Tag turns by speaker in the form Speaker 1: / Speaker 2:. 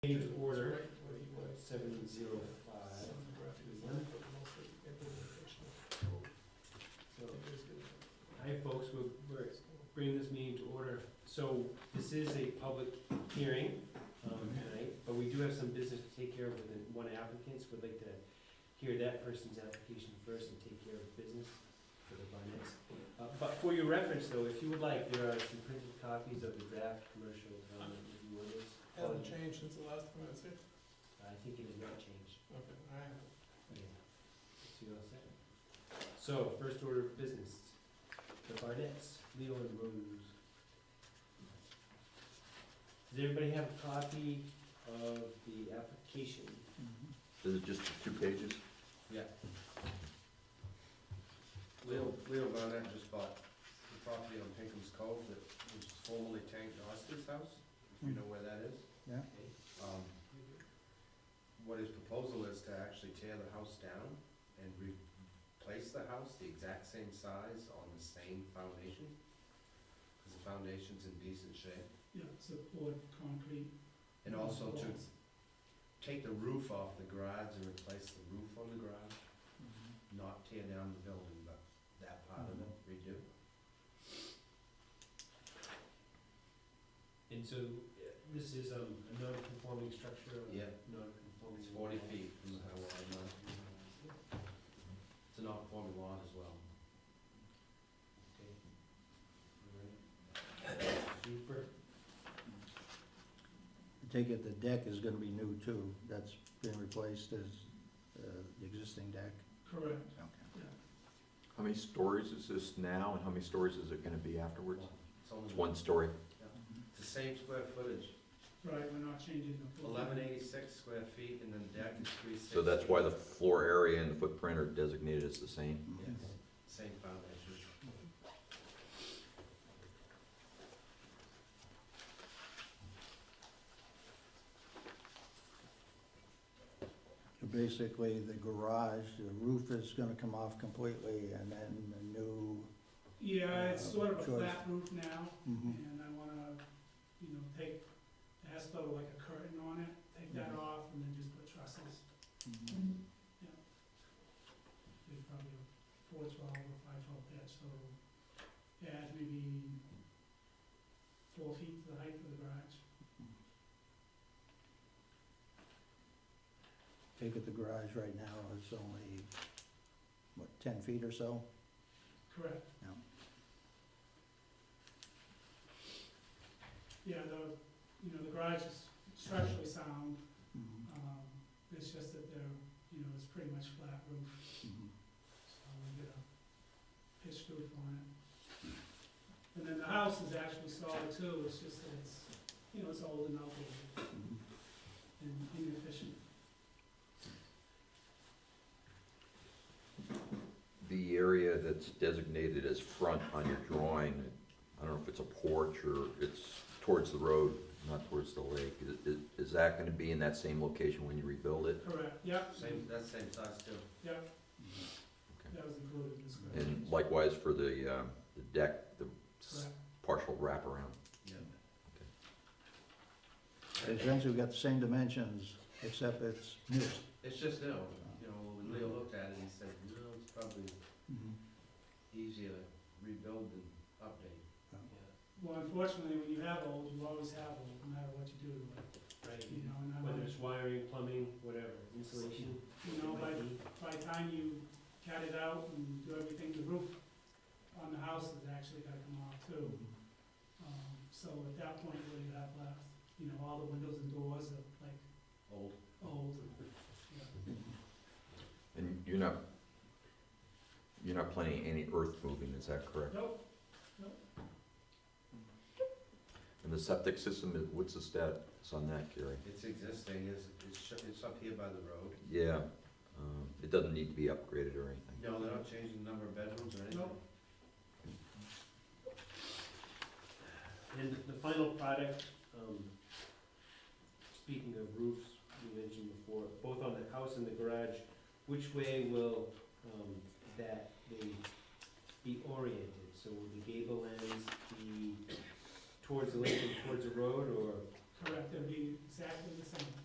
Speaker 1: Meeting to order, seven zero five. So, hi folks, we're, we're bringing this meeting to order. So this is a public hearing, um, tonight, but we do have some business to take care of with the one applicant, so we'd like to hear that person's application first and take care of business for the next. Uh, but for your reference though, if you would like, there are some printed copies of the draft commercial development review orders.
Speaker 2: Hasn't changed since the last time I was here.
Speaker 1: I think it has not changed.
Speaker 2: Okay, I haven't.
Speaker 1: Yeah. So you're all set. So, first order of business, the Barnetts, Leo and Rose. Does everybody have a copy of the application?
Speaker 3: Is it just two pages?
Speaker 4: Leo, Leo Barnett just bought the property on Pinkham's Cove that was formerly Tank Doster's house, if you know where that is.
Speaker 1: Okay.
Speaker 4: Um, What his proposal is to actually tear the house down and replace the house the exact same size on the same foundation, because the foundation's in decent shape.
Speaker 2: Yeah, it's a poured concrete.
Speaker 4: And also to take the roof off the garage and replace the roof on the garage, not tear down the building, but that part of it
Speaker 1: Mm-hmm.
Speaker 4: redo.
Speaker 1: And so, uh, this is um, a non-conforming structure? or
Speaker 4: Yeah.
Speaker 1: Non-conforming.
Speaker 4: It's forty feet from the high water mark. It's a non-conforming lot as well.
Speaker 1: Okay. All right. Super.
Speaker 3: I take it the deck is gonna be new too, that's been replaced as, uh, the existing deck?
Speaker 2: Correct,
Speaker 3: Okay.
Speaker 2: yeah.
Speaker 5: How many stories is this now, and how many stories is it gonna be afterwards?
Speaker 4: It's only,
Speaker 5: It's one story.
Speaker 4: it's the same square footage,
Speaker 2: Right, we're not changing the floor.
Speaker 4: eleven eighty-six square feet and then deck is three sixty.
Speaker 5: So that's why the floor area and the footprint are designated as the same.
Speaker 4: Yes, same foundation.
Speaker 3: So Basically, the garage, the roof is gonna come off completely and then the new,
Speaker 2: Yeah,
Speaker 4: uh,
Speaker 2: it's sort of a
Speaker 3: Choice.
Speaker 2: flat roof now,
Speaker 3: mhm,
Speaker 2: and I wanna, you know, take, it has sort of like a curtain on it, take that
Speaker 4: Mm-hmm.
Speaker 3: Mhm.
Speaker 2: off, and then just put trusses.
Speaker 3: mhm.
Speaker 2: There's probably a four twelve or five twelve pitch, so it adds maybe four feet to the height of the garage.
Speaker 3: Take it the garage right now is only, what, ten feet or so?
Speaker 2: Correct.
Speaker 3: Yeah.
Speaker 2: Yeah, the, you know, the garage is structurally sound,
Speaker 3: Mhm,
Speaker 2: um, it's just that they're, you know, it's pretty much flat roof,
Speaker 3: mhm.
Speaker 2: so we get a pitched roof on it. And then the house is actually solid too, it's just that it's, you know, it's old and outdated and inefficient.
Speaker 5: The area that's designated as front on your drawing, I don't know if it's a porch or it's towards the road, not towards the lake. Is- Is, is that gonna be in that same location when you rebuild it?
Speaker 2: Correct, yep,
Speaker 4: Same, that's same size too.
Speaker 2: yep, that was included in this.
Speaker 5: And likewise for the, um, the deck, the s-
Speaker 2: Correct,
Speaker 5: partial wraparound.
Speaker 4: Yeah.
Speaker 3: Essentially, we got the same dimensions, except it's new.
Speaker 4: It's just no, you know, when Leo looked at it, he said, no, it's probably
Speaker 3: Mhm,
Speaker 4: easier to rebuild than update.
Speaker 1: Yeah,
Speaker 2: well, unfortunately, when you have old, you always have old, no matter what you do to it.
Speaker 1: right.
Speaker 2: You know, and I
Speaker 1: Whether it's
Speaker 2: wanna-
Speaker 1: wiring, plumbing, whatever, insulation.
Speaker 2: you know, by,
Speaker 1: might be.
Speaker 2: by the time you cut it out and do everything, the roof on the house is actually gotta come off too.
Speaker 3: mhm.
Speaker 2: Um, so at that point, what do you have left? You know, all the windows and doors are like
Speaker 4: Old,
Speaker 2: old, yeah.
Speaker 5: And you're not, you're not planning any earth moving, is that correct?
Speaker 2: Nope,
Speaker 5: And the septic system, is- what's the status on that, Gary?
Speaker 4: it's existing, it's, it's, sh- it's up here by the road.
Speaker 5: Yeah, um, it doesn't need to be upgraded or anything.
Speaker 4: No, they're not changing the number of bedrooms or anything.
Speaker 2: Nope.
Speaker 1: And the final product, um, speaking of roofs, you mentioned before, both on the house and the garage, which way will, um, that they be oriented? So will the gable ends be towards the lake and towards the road, or
Speaker 2: correct, it'd be exactly the same.